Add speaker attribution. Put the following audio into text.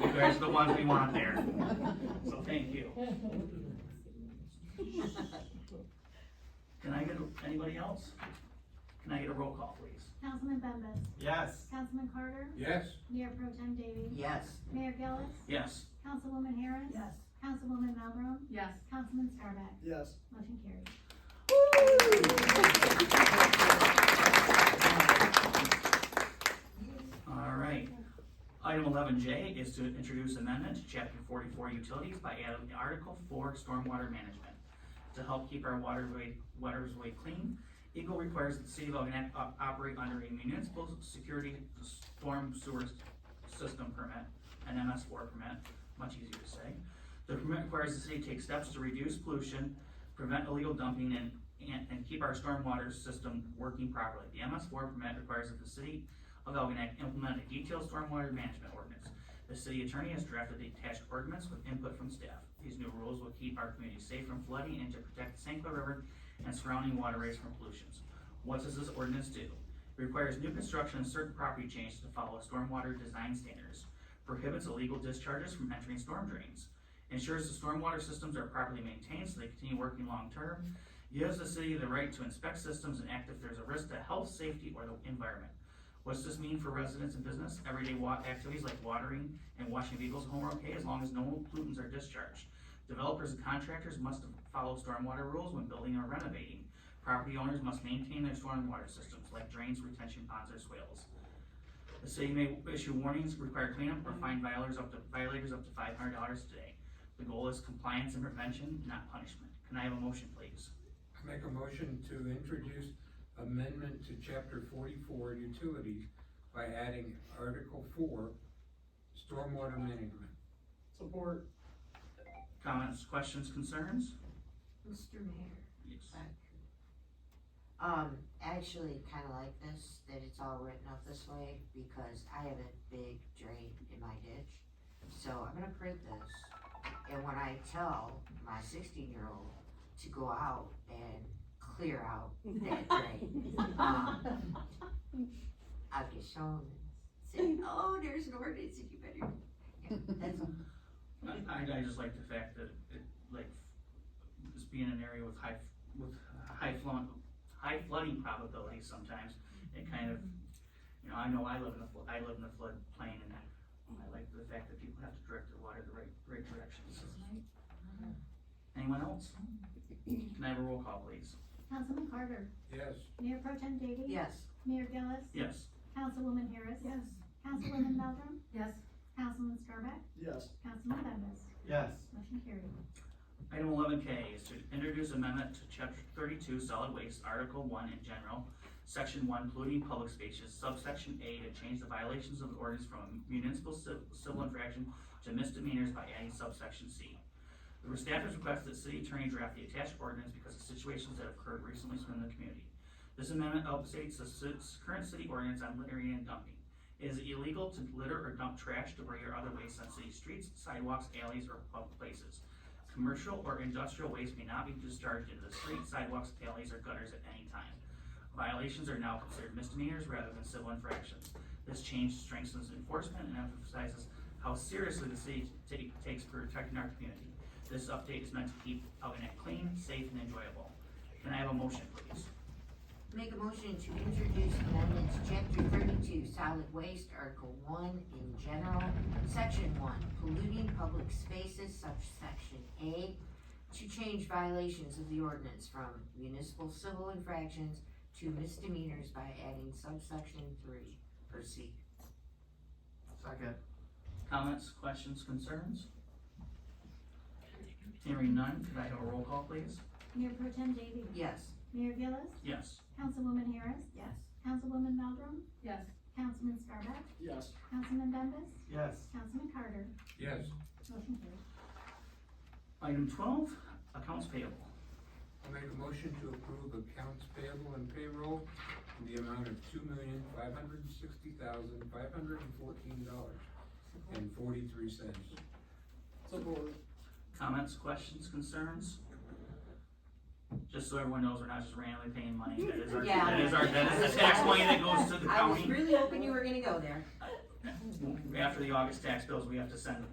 Speaker 1: There's the ones we want there. So thank you. Can I get, a- anybody else? Can I get a roll call, please?
Speaker 2: Councilman Bembas.
Speaker 1: Yes.
Speaker 2: Councilman Carter.
Speaker 3: Yes.
Speaker 2: Mayor Pro Tem Davey.
Speaker 4: Yes.
Speaker 2: Mayor Gillis.
Speaker 1: Yes.
Speaker 2: Councilwoman Harris.
Speaker 5: Yes.
Speaker 2: Councilwoman Maldrum.
Speaker 5: Yes.
Speaker 2: Councilman Scarback.
Speaker 6: Yes.
Speaker 2: Motion carried.
Speaker 1: All right. Item eleven J is to introduce amendment to chapter forty-four utilities by adding article four stormwater management. To help keep our waterway, waters way clean, Eagle requires that the city of Algenack op- operate under a municipal security storm sewer system permit, an MS four permit, much easier to say. The permit requires the city to take steps to reduce pollution, prevent illegal dumping, and, and, and keep our stormwater system working properly. The MS four permit requires that the city of Algenack implement a detailed stormwater management ordinance. The city attorney has drafted the attached ordinance with input from staff. These new rules will keep our community safe from flooding and to protect the St. Cloud River and surrounding waterways from pollutions. What does this ordinance do? It requires new construction and certain property changes to follow stormwater design standards, prohibits illegal discharges from entering storm drains, ensures the stormwater systems are properly maintained so they continue working long-term, gives the city the right to inspect systems and act if there's a risk to health, safety, or the environment. What's this mean for residents and business? Everyday wa- activities like watering and washing vehicles home are okay as long as no pollutants are discharged. Developers and contractors must follow stormwater rules when building or renovating. Property owners must maintain their stormwater systems like drains, retention ponds, or swales. The city may issue warnings, require cleanup, or fine violators up to, violators up to five hundred dollars today. The goal is compliance and prevention, not punishment. Can I have a motion, please?
Speaker 3: I make a motion to introduce amendment to chapter forty-four utilities by adding article four, stormwater management.
Speaker 6: Support.
Speaker 1: Comments, questions, concerns?
Speaker 5: Mr. Mayor.
Speaker 1: Yes.
Speaker 4: Um, actually, kinda like this, that it's all written up this way, because I have a big drain in my ditch. So I'm gonna print this, and when I tell my sixteen-year-old to go out and clear out that drain, um, I'll get shown, say, oh, there's an ordinance, and you better, yeah, that's,
Speaker 1: I, I- I just like the fact that it, like, just being in an area with high, with high flood, high flooding probability sometimes, it kind of, you know, I know I live in a, flo- I live in a flood plain and I like the fact that people have to direct their water the right, right direction, so. Anyone else? Can I have a roll call, please?
Speaker 2: Councilman Carter.
Speaker 3: Yes.
Speaker 2: Mayor Pro Tem Davey.
Speaker 4: yes,
Speaker 2: Mayor Gillis.
Speaker 1: Yes.
Speaker 2: Councilwoman Harris.
Speaker 5: Yes.
Speaker 2: Councilwoman Maldrum.
Speaker 5: Yes.
Speaker 2: Councilman Scarback.
Speaker 6: Yes.
Speaker 2: Councilman Bembas.
Speaker 6: Yes.
Speaker 2: Motion carried.
Speaker 1: Item eleven K is to introduce amendment to chapter thirty-two solid waste, article one in general, section one polluting public spaces, subsection A to change the violations of the ordinance from municipal ci- civil infraction to misdemeanors by adding subsection C. The staff has requested that city attorney draft the attached ordinance because of situations that have occurred recently within the community. This amendment updates the ci- current city ordinance on littering and dumping. It is illegal to litter or dump trash, debris, or other waste on city streets, sidewalks, alleys, or public places. Commercial or industrial waste may not be discharged into the street, sidewalks, alleys, or gutters at any time. Violations are now considered misdemeanors rather than civil infractions. This change strengthens enforcement and emphasizes how seriously the city ta- takes protecting our community. This update is meant to keep Algenack clean, safe, and enjoyable. Can I have a motion, please?
Speaker 4: Make a motion to introduce amendments to chapter thirty-two, solid waste, article one in general, section one, polluting public spaces, subsection A, to change violations of the ordinance from municipal civil infractions to misdemeanors by adding subsection three, per C.
Speaker 6: Second.
Speaker 1: Comments, questions, concerns? Hearing none, could I have a roll call, please?
Speaker 2: Mayor Pro Tem Davey.
Speaker 4: Yes.
Speaker 2: Mayor Gillis.
Speaker 1: Yes.
Speaker 2: Councilwoman Harris.
Speaker 4: Yes.
Speaker 2: Councilwoman Maldrum.
Speaker 5: Yes.
Speaker 2: Councilman Scarback.
Speaker 6: Yes.
Speaker 2: Councilman Bembas.
Speaker 6: Yes.
Speaker 2: Councilman Carter.
Speaker 3: Yes.
Speaker 2: Motion carried.
Speaker 1: Item twelve, accounts payable.
Speaker 3: I make a motion to approve accounts payable and payroll in the amount of two million, five hundred and sixty thousand, five hundred and fourteen dollars and forty-three cents.
Speaker 6: Support.
Speaker 1: Comments, questions, concerns? Just so everyone knows, we're not just randomly paying money, that is our,
Speaker 4: Yeah.
Speaker 1: that is our, that is the tax money that goes to the
Speaker 4: I was
Speaker 1: county.
Speaker 4: really hoping you were gonna go there.
Speaker 1: After the August tax bills, we have to send